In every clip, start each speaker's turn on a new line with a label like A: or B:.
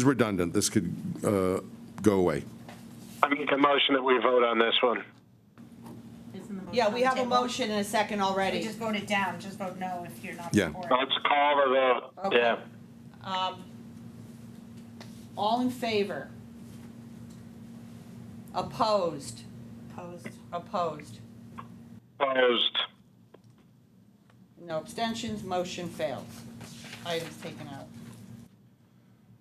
A: is redundant. This could uh, go away.
B: I make a motion that we vote on this one.
C: Yeah, we have a motion and a second
D: We
C: already.
D: just vote it down, just vote no if you're not
A: Yeah.
D: for it.
B: Let's call the vote.
C: Okay.
B: Yeah.
C: Um, All in favor? Opposed?
D: Opposed.
C: Opposed?
B: Opposed.
C: No abstentions, motion fails. Item's taken out.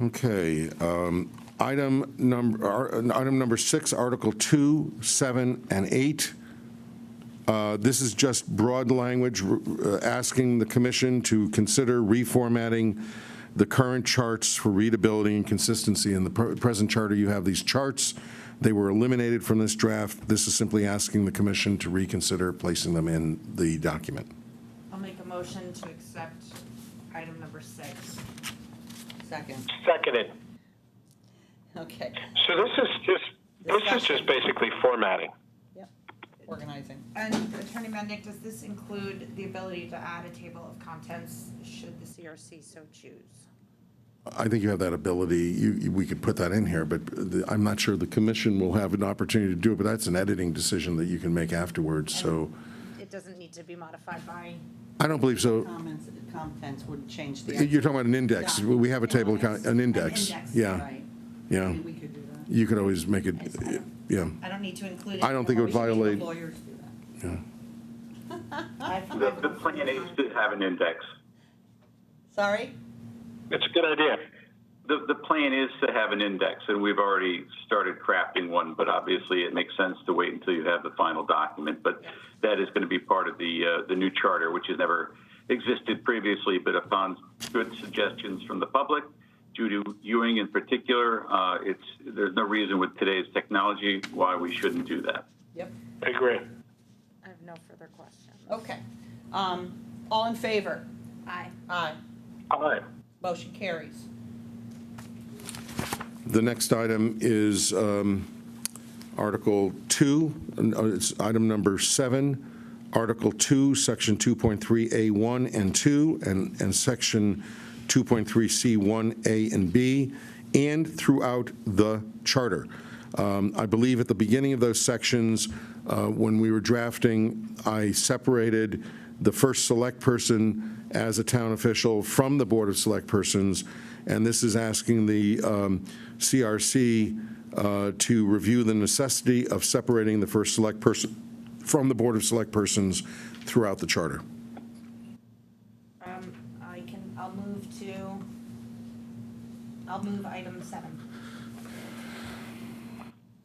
A: Okay, um, item number, ar- item number six, Article 2, 7, and 8. Uh, This is just broad language, r- uh, asking the commission to consider reformatting the current charts for readability and consistency. In the pr- present charter, you have these charts. They were eliminated from this draft. This is simply asking the commission to reconsider placing them in the document.
E: I'll make a motion to accept item number six.
C: Second,
B: Seconded.
C: okay.
B: So this is just, this is just basically formatting.
C: Yep. Organizing.
E: And Attorney Mendick, does this include the ability to add a table of contents should the CRC so choose?
A: I think you have that ability, you, you- we could put that in here, but the- I'm not sure the commission will have an opportunity to do it, but that's an editing decision that you can make afterwards, so,
E: It doesn't need to be modified by,
A: I don't believe so.
C: Comments, contents wouldn't change the.
A: You're talking about an index, we have a table, of con- an index,
E: index,
A: yeah,
C: Right.
A: yeah.
C: Maybe we could do that.
A: You could always make it, yeah,
E: I don't need to include it.
A: I don't think it would violate,
C: Lawyers do that.
E: I've- I've-
F: The, the plan is to have an index.
C: Sorry?
B: It's a good idea.
F: The, the plan is to have an index, and we've already started crafting one, but obviously it makes sense to wait until you have the final document. But that is going to be part of the, uh, the new charter, which has never existed previously, but upon good suggestions from the public, Judy Ewing in particular, uh, it's, there's no reason with today's technology why we shouldn't do that.
C: Yep.
B: I agree.
E: I have no further questions.
C: Okay. Um, All in favor?
E: Aye.
C: Aye.
B: Aye.
C: Motion carries.
A: the next item is um, Article 2, and, uh, it's item number 7, Article 2, Section 2.3A1 and 2, and, and Section 2.3C1A and B, and throughout the charter. Um, I believe at the beginning of those sections, uh, when we were drafting, I separated the first select person as a town official from the Board of Select Persons, and this is asking the um, CRC uh, to review the necessity of separating the first select person from the Board of Select Persons throughout the charter.
E: Um, I can, I'll move to, I'll move item seven.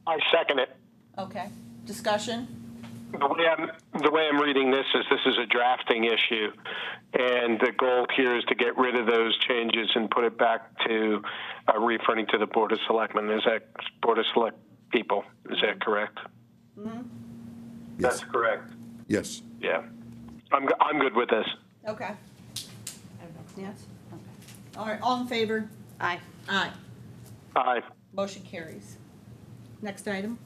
B: I second it.
C: Okay. Discussion?
B: The way I'm, the way I'm reading this is this is a drafting issue, and the goal here is to get rid of those changes and put it back to uh, referring to the Board of Selectmen. Is that Board of Select people? Is that correct?
A: Yes.
F: correct.
A: Yes.
B: Yeah. I'm, go- I'm good with this.
C: Okay.
E: I have no-
C: Yes? Okay. All right, all in favor?
E: Aye.
C: Aye.
B: Aye.
C: Motion carries. Next item?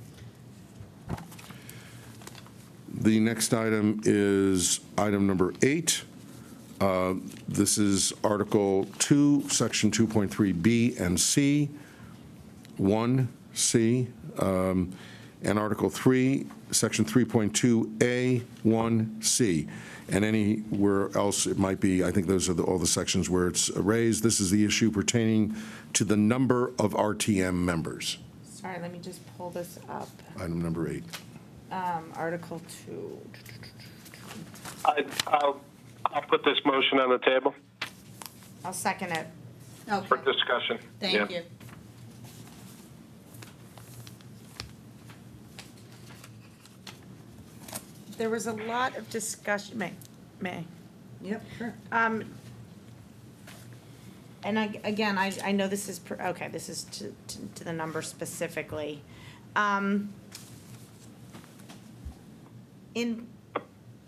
A: The next item is item number eight. Uh, This is Article 2, Section 2.3B and C, 1C, um, and Article 3, Section 3.2A, 1C, and anywhere else it might be. I think those are the- all the sections where it's raised. This is the issue pertaining to the number of RTM members,
E: Sorry, let me just pull this up.
A: item number eight.
E: Um, Article two.
B: I, I'll, I'll put this motion on the table
E: I'll second it.
B: for
C: Okay,
B: discussion.
C: thank
B: Yeah.
C: you.
E: There was a lot of discussion, may, may.
C: Yep, sure.
E: Um, and I, again, I, I know this is, per- okay, this is to, to- to the number specifically. Um, in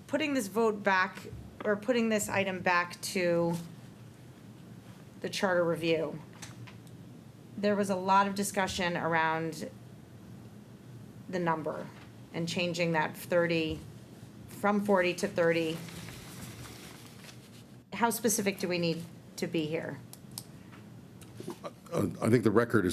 E: putting this vote back, or putting this item back to the charter review, there was a lot of discussion around the number and changing that thirty, from forty to thirty how specific do we need to be here?
A: uh, I think the record is.